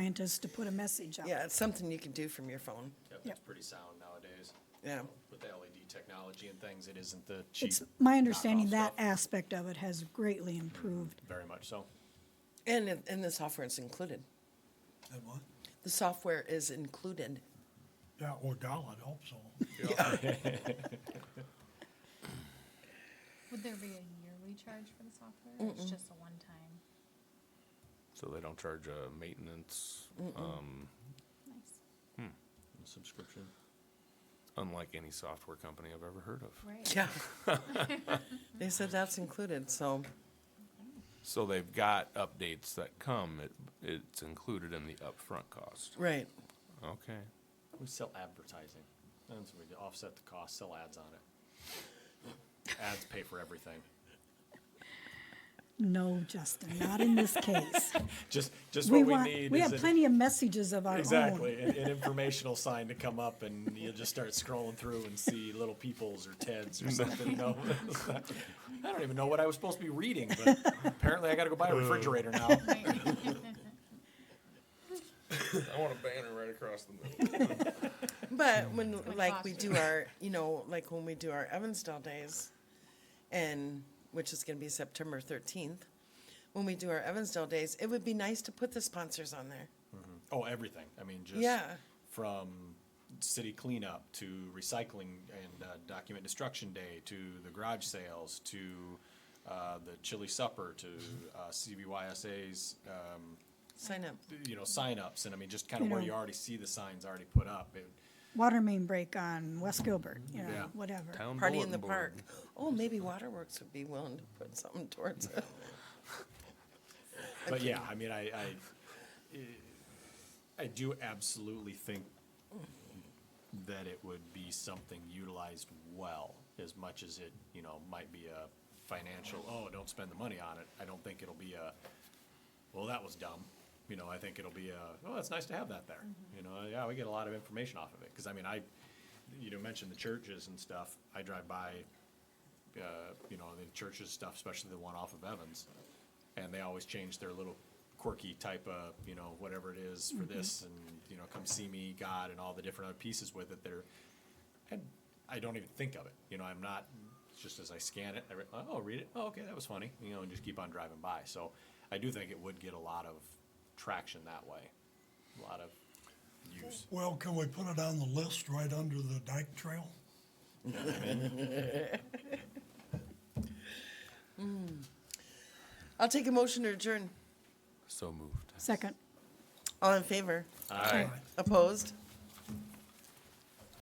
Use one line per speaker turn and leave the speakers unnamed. scientists to put a message out.
Yeah, it's something you can do from your phone.
Yep,
Yep.
that's pretty sound nowadays.
Yeah.
With the LED technology and things, it isn't the cheap.
It's, my
knockoff
understanding that
stuff.
aspect of it has greatly improved.
Very much so.
And, it- and the software is included.
And what?
The software is included.
Yeah, or doll, I'd hope so.
Would there be a yearly charge for the software? or It's just a one-time.
So they don't charge a maintenance, um,
Nice.
Subscription.
unlike any software company I've ever heard of.
Right.
Yeah. They said that's included, so,
So they've got updates that come, it, it's included in the upfront cost.
right.
Okay.
We sell advertising. That's what we do. Offset the cost, sell ads on it. Ads pay for everything.
No, Justin, not in this case.
Just, just
We
what we
want,
need.
we
is
have
an-
plenty of messages of our own.
Exactly, an, an informational sign to come up and you'll just start scrolling through and see little peoples or Teds or something, you know? I don't even know what I was supposed to be reading, but apparently I gotta go buy a refrigerator now.
I want a banner right across the middle.
But when, like, we
cost
do our, you know, like when we do our Evansdale days, and, which is gonna be September thirteenth, when we do our Evansdale days, it would be nice to put the sponsors on there.
Oh, everything, I mean, just.
Yeah.
From city cleanup to recycling and, uh, document destruction day, to the garage sales, to, uh, the chili supper, to,
Mm-hmm.
uh, CBYSA's, um,
Sign up.
you know, signups, and I mean, just kinda
You
where
know.
you already see the signs already put up, it,
Water main break on West Gilbert, you
Yeah.
know, whatever.
Town
Party in the
bulletin
park.
board.
Oh, maybe Waterworks would be willing to put something towards it.
But yeah, I mean, I, I, I do absolutely think that it would be something utilized well, as much as it, you know, might be a financial, oh, don't spend the money on it. I don't think it'll be a, well, that was dumb. You know, I think it'll be a, oh, it's nice to have that there. You know, yeah, we get a lot of information off of it. Cause I mean, I, you know, mentioned the churches and stuff. I drive by, uh, you know, the churches stuff, especially the one off of Evans and they always change their little quirky type of you know whatever it is for this and you know come see me god and all the different other pieces with it they're and i don't even think of it you know i'm not it's just as i scan it i re- oh read it oh okay that was funny you know and just keep on driving by so i do think it would get a lot of traction that way a lot of use
Well, can we put it on the list right under the dike trail?
I'll take a motion to adjourn.
So moved.
Second.
All in favor?
all right
Opposed?